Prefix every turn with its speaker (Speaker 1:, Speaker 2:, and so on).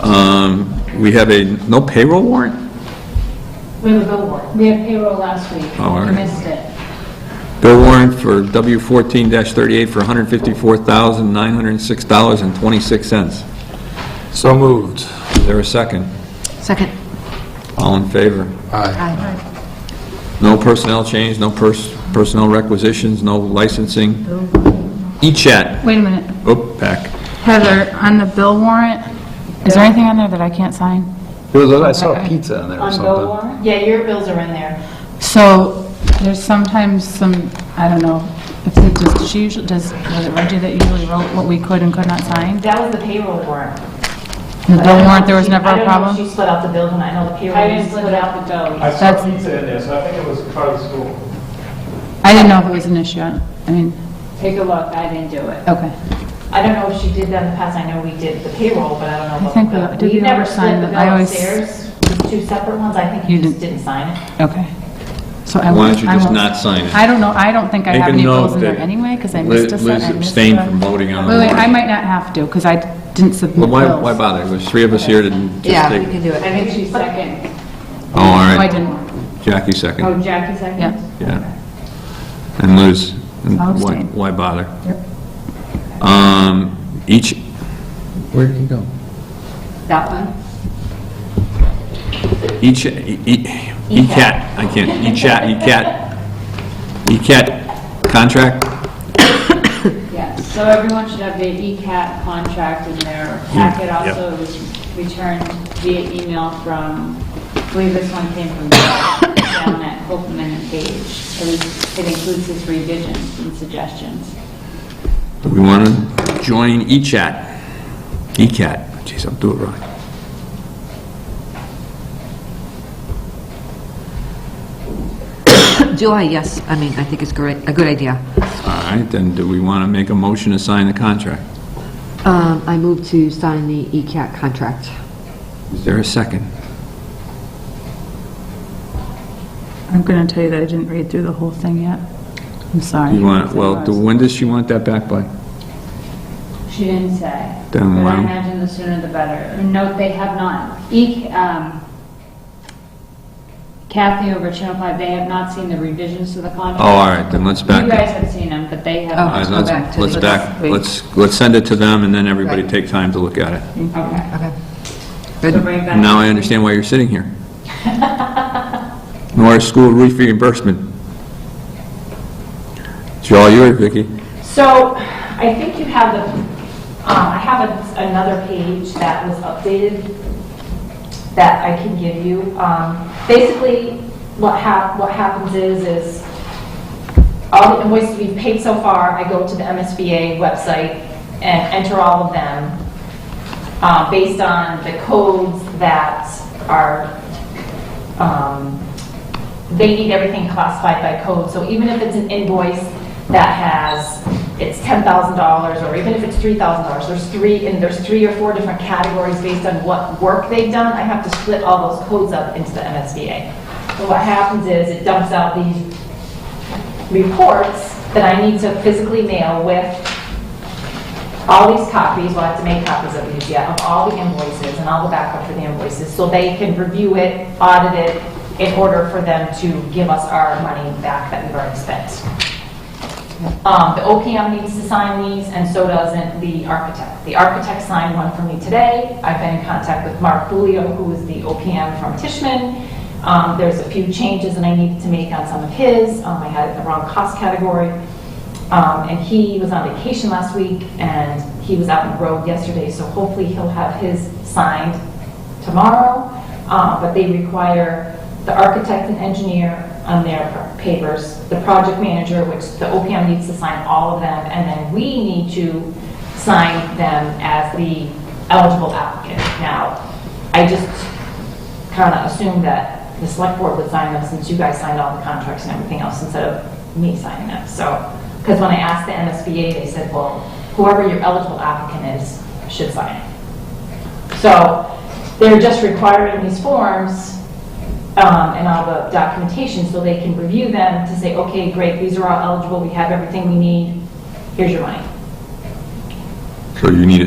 Speaker 1: Um, We have a, no payroll warrant?
Speaker 2: We have a bill warrant. We had payroll last week.
Speaker 1: Oh, all right.
Speaker 2: You missed it.
Speaker 1: Bill warrant for W14-38 for $154,906.26. Is
Speaker 3: So moved.
Speaker 1: there a second?
Speaker 4: Second.
Speaker 1: All in favor?
Speaker 3: Aye.
Speaker 4: Aye.
Speaker 1: No personnel change, no pers- personnel requisitions, no licensing. E-chat,
Speaker 5: Wait a minute.
Speaker 1: oop, pack.
Speaker 5: Heather, on the bill warrant, is there anything on there that I can't sign?
Speaker 3: It was, I saw a pizza on there or
Speaker 2: On bill
Speaker 3: something.
Speaker 2: warrant? Yeah, your bills are in there.
Speaker 5: So there's sometimes some, I don't know, if it does, she usually, does, was it Reggie that usually wrote what we could and could not sign?
Speaker 2: That was the payroll warrant. I
Speaker 5: The
Speaker 2: don't
Speaker 5: bill
Speaker 2: know
Speaker 5: warrant,
Speaker 2: if
Speaker 5: there was
Speaker 2: she-
Speaker 5: never
Speaker 2: I
Speaker 5: a
Speaker 2: don't know if she
Speaker 5: problem?
Speaker 2: split out the bills, and I know the payroll.
Speaker 4: I didn't
Speaker 2: you
Speaker 4: split out the bills.
Speaker 6: I saw
Speaker 5: That's-
Speaker 6: pizza in there, so I think it was part of the school.
Speaker 5: I didn't know if it was an issue. I I mean,
Speaker 4: Take a look, I didn't do it.
Speaker 5: okay.
Speaker 2: I don't know if she did that in the past, I know we did the payroll, but I don't know about the
Speaker 5: think we-
Speaker 2: bill.
Speaker 5: did we
Speaker 2: never
Speaker 5: ever
Speaker 2: split
Speaker 5: sign
Speaker 2: the
Speaker 5: it?
Speaker 2: bill
Speaker 5: I always-
Speaker 2: upstairs, the two separate ones, I think
Speaker 5: You
Speaker 2: you just
Speaker 5: didn't-
Speaker 2: didn't sign it.
Speaker 5: Okay. So I
Speaker 1: Why
Speaker 5: won't-
Speaker 1: don't you
Speaker 5: I
Speaker 1: just
Speaker 5: won't-
Speaker 1: not sign it?
Speaker 5: I don't know, I don't think I
Speaker 1: Make
Speaker 5: have
Speaker 1: a
Speaker 5: any
Speaker 1: note
Speaker 5: bills in there
Speaker 1: that
Speaker 5: anyway, because I
Speaker 1: Liz-
Speaker 5: missed a se- I
Speaker 1: Liz
Speaker 5: missed
Speaker 1: abstained
Speaker 5: a-
Speaker 1: from voting on the
Speaker 5: Wait, wait, I
Speaker 1: warrant.
Speaker 5: might not have to, because I didn't submit
Speaker 1: Well,
Speaker 5: bills.
Speaker 1: why why bother? There's three of us here to just
Speaker 4: Yeah, we
Speaker 1: take...
Speaker 4: can do
Speaker 2: I
Speaker 4: it.
Speaker 2: think
Speaker 4: She seconded.
Speaker 1: Oh, all
Speaker 5: No, I
Speaker 1: right.
Speaker 5: didn't.
Speaker 1: Jackie
Speaker 4: Oh,
Speaker 1: second,
Speaker 4: Jackie seconded?
Speaker 5: Yeah.
Speaker 1: yeah. And Liz, and
Speaker 5: I'll
Speaker 1: why
Speaker 5: abstain.
Speaker 1: why bother? Um, each,
Speaker 3: Where did he go?
Speaker 4: That one?
Speaker 1: each, e- e- e-cat, I can't, e e-chat, e-cat, e-cat e contract?
Speaker 4: Yes. So everyone should have E the ECAT contract in their
Speaker 1: Mm,
Speaker 4: packet also was returned via email from, I believe this one came from down at Holcomb and Page. It was- it includes his revisions and suggestions.
Speaker 1: Do we want to join e e-chat? E-cat, jeez, I'll do it right.
Speaker 7: July, yes, I mean, I think it's great, a good idea.
Speaker 1: All right, then do we want to make a motion to sign the contract?
Speaker 7: Um, I move to sign the E ECAT contract.
Speaker 1: Is there a second?
Speaker 5: I'm going to tell you that I didn't read through the whole thing yet. I'm sorry.
Speaker 1: You want, well, do- when does she want that back by?
Speaker 4: She didn't say.
Speaker 1: Then
Speaker 4: But
Speaker 1: why-
Speaker 4: I imagine the sooner the better. No, they have not. E- um, Kathy over at Channel 5, they have not seen the revisions to the contract.
Speaker 1: Oh, all right, then let's back
Speaker 4: You
Speaker 1: up.
Speaker 4: guys have seen them, but they have
Speaker 7: Oh,
Speaker 1: All right,
Speaker 4: not.
Speaker 7: let's go
Speaker 1: let's-
Speaker 7: back to
Speaker 1: Let's
Speaker 7: the-
Speaker 1: back, let's, let's send it to them, and then everybody take time to look at it.
Speaker 4: Okay.
Speaker 7: Okay.
Speaker 4: So bring it back.
Speaker 1: Now I understand why you're sitting here. Norris School roof reimbursement. It's all yours, Vicki.
Speaker 2: So I think you have the, um, I have a- another page that was updated that I can give you. Um, Basically, what hap, what happens is, is all the invoices we've paid so far, I go to the MSBA website and enter all of them uh, based on the codes that are, um, they need everything classified by code. So even if it's an invoice that has, it's $10,000 or even if it's $3,000, there's three, and there's three or four different categories based on what work they've done, I have to split all those codes up into the MSBA. So what happens is it dumps out these reports that I need to physically mail with all these copies, we'll have to make copies of these, yeah, of all the invoices and all the backup for the invoices, so they can review it, audit it, in order for them to give us our money back that we've already spent. Um, the OPM needs to sign these, and so doesn't the architect. The architect signed one for me today. I've been in contact with Mark Bulio, who is the OPM from Tishman. Um, there's a few changes that I needed to make on some of his. Um, I had it in the wrong cost category. Um, And he was on vacation last week, and he was out on the road yesterday, so hopefully he'll have his signed tomorrow. Uh, But they require the architect and engineer on their papers, the project manager, which the OPM needs to sign all of them, and then we need to sign them as the eligible applicant. Now, I just kind of assumed that the select board would sign them since you guys signed all the contracts and everything else instead of me signing them. So, because when I asked the MSBA, they said, well, whoever your eligible applicant is should sign it. So they're just requiring these forms um, and all the documentation so they can review them to say, okay, great, these are all eligible, we have everything we need, here's your money.
Speaker 1: So you need a